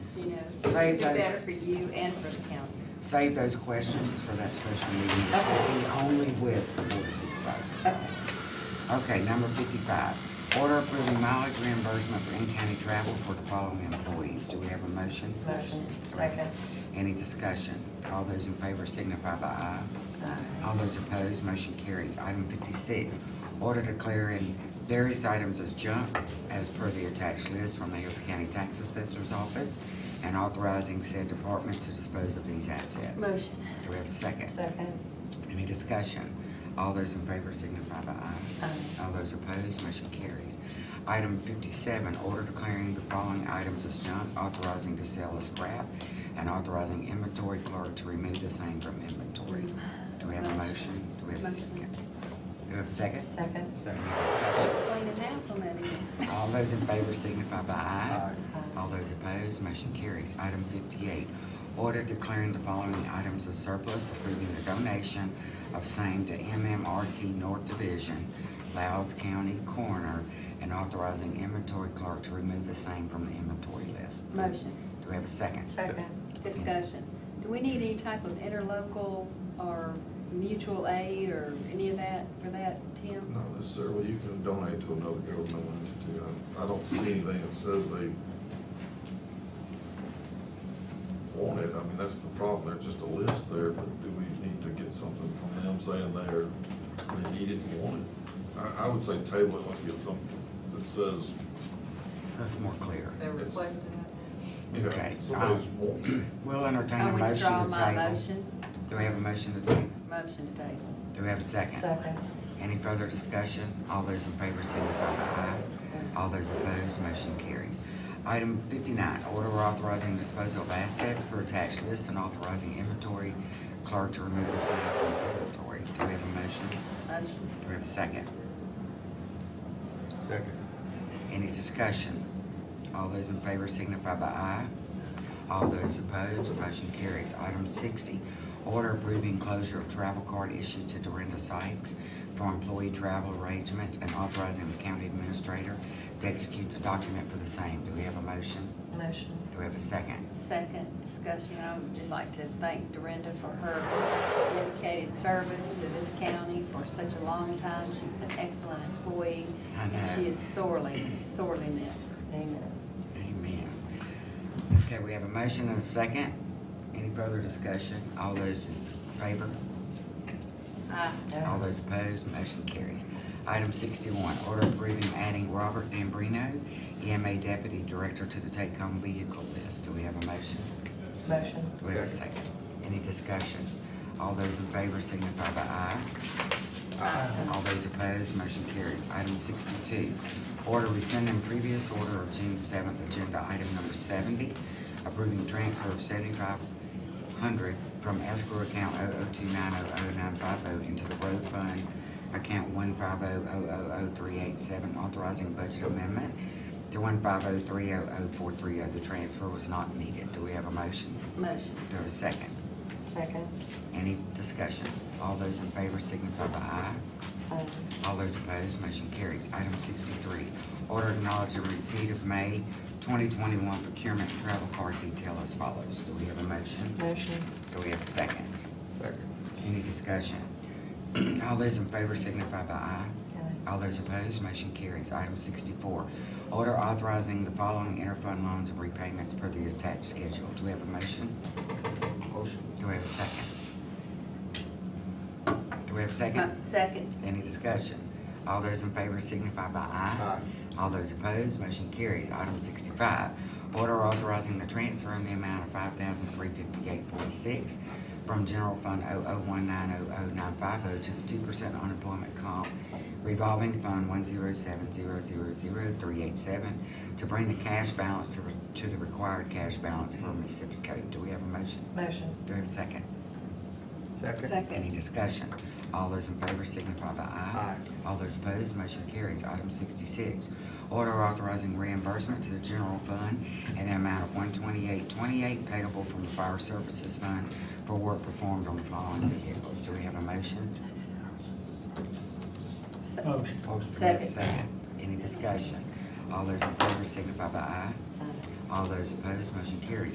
Save It'd be those, better for you and for the county. save those questions for that special meeting, which will be only with the board of supervisors. Okay. Okay, number fifty-five, order approving mileage reimbursement for in-county travel for the following employees. Do we have a motion? Motion. Grace. Second. Any discussion? All those in favor signify by aye. All those opposed, motion carries. Item fifty-six, order declaring various items as junk as per the attached list from the Harrison County Tax Assessor's Office and authorizing said department to dispose of these assets. Motion. Do we have a second? Second. Any discussion? All those in favor signify by aye. All those opposed, motion carries. Item fifty-seven, order declaring the following items as junk, authorizing to sell as scrap, and authorizing inventory clerk to remove the same from inventory. Do we have a motion? Do we have a second? Do we have a second? Second. Is there any discussion? Cleaning house on that end. All those in favor signify by aye. Aye. All those opposed, motion carries. Item fifty-eight, order declaring the following items as surplus, approving the donation of same to MMRT North Division, Louds County Coroner, and authorizing inventory clerk to remove the same from the inventory list. Motion, Do we have a second? Second. discussion. Do we need any type of interlocal or mutual aid or any of that for that, Tim? Not necessarily, you can donate to another governmental entity, I, I don't see anything that says they want it, I mean, that's the problem, there's just a list there, but do we need to get something from them saying they're, they need it and want it? I, I would say table it, let's get something that says, That's more clear. They're It's- requesting you know, Okay. somebody's wanting We'll entertain I a motion withdraw to my table. motion, Do we have a motion to table? motion to table. Do we have a second? Second. Any further discussion? All those in favor signify by aye. All those opposed, motion carries. Item fifty-nine, order authorizing disposal of assets for attached list and authorizing inventory clerk to remove the same from inventory. Do we have a motion? Motion, Do we have a second? Second. Any discussion? All those in favor signify by aye. All those opposed, motion carries. Item sixty, order approving closure of travel card issued to Dorinda Sykes for employee travel arrangements and authorizing the county administrator to execute the document for the same. Do we have a motion? motion. Do we have a second? second discussion. I would just like to thank Dorinda for her dedicated service to this county for such a long time. She's an excellent employee, I and she know. is sorely, sorely missed. Amen. Amen. Okay, we have a motion and a second. Any further discussion? All those in favor? Aye. All those opposed, motion carries. Item sixty-one, order approving adding Robert D'Ambrino, EMA Deputy Director to the take-home vehicle list. Do we have a motion? Motion. Do we have a second? Any discussion? All those in favor signify by aye. All those opposed, motion carries. Item sixty-two, order rescinding previous order of June seventh, agenda item number seventy, approving transfer of seventy-five hundred from escrow account 0029000950 into the road fund account one five oh oh oh oh three eight seven, authorizing budget amendment to one five oh three oh oh four three oh. The transfer was not needed. Do we have a motion? Motion, Do we have a second? Second. Any discussion? All those in favor signify by aye. Aye. All those opposed, motion carries. Item sixty-three, order acknowledging receipt of May twenty twenty-one procurement travel card detail as follows. Do we have a motion? Motion. Do we have a second? Second. Any discussion? All those in favor signify by aye. All those opposed, motion carries. Item sixty-four, order authorizing the following interfund loans and repayments per the attached schedule. Do we have a motion? Motion. Do we have a second? Do we have a second? Mo- Uh, second, Any discussion? All those in favor signify by aye. All those opposed, motion carries. Item sixty-five, order authorizing the transfer in the amount of five thousand three fifty-eight forty-six from general fund 001900950 to the two percent unemployment comp revolving fund one zero seven zero zero zero three eight seven to bring the cash balance to, re- to the required cash balance for Mississippi Code. Do we have a motion? Motion. Do we have a second? Second. Any discussion? All those in favor signify by aye. Aye. All those opposed, motion carries. Item sixty-six, order authorizing reimbursement to the general fund in the amount of one twenty-eight twenty-eight payable from the fire services fund for work performed on the following vehicles. Do we have a motion? Se- Do we have a Second. Second. Any discussion? All those in favor signify by aye. All those opposed, motion carries.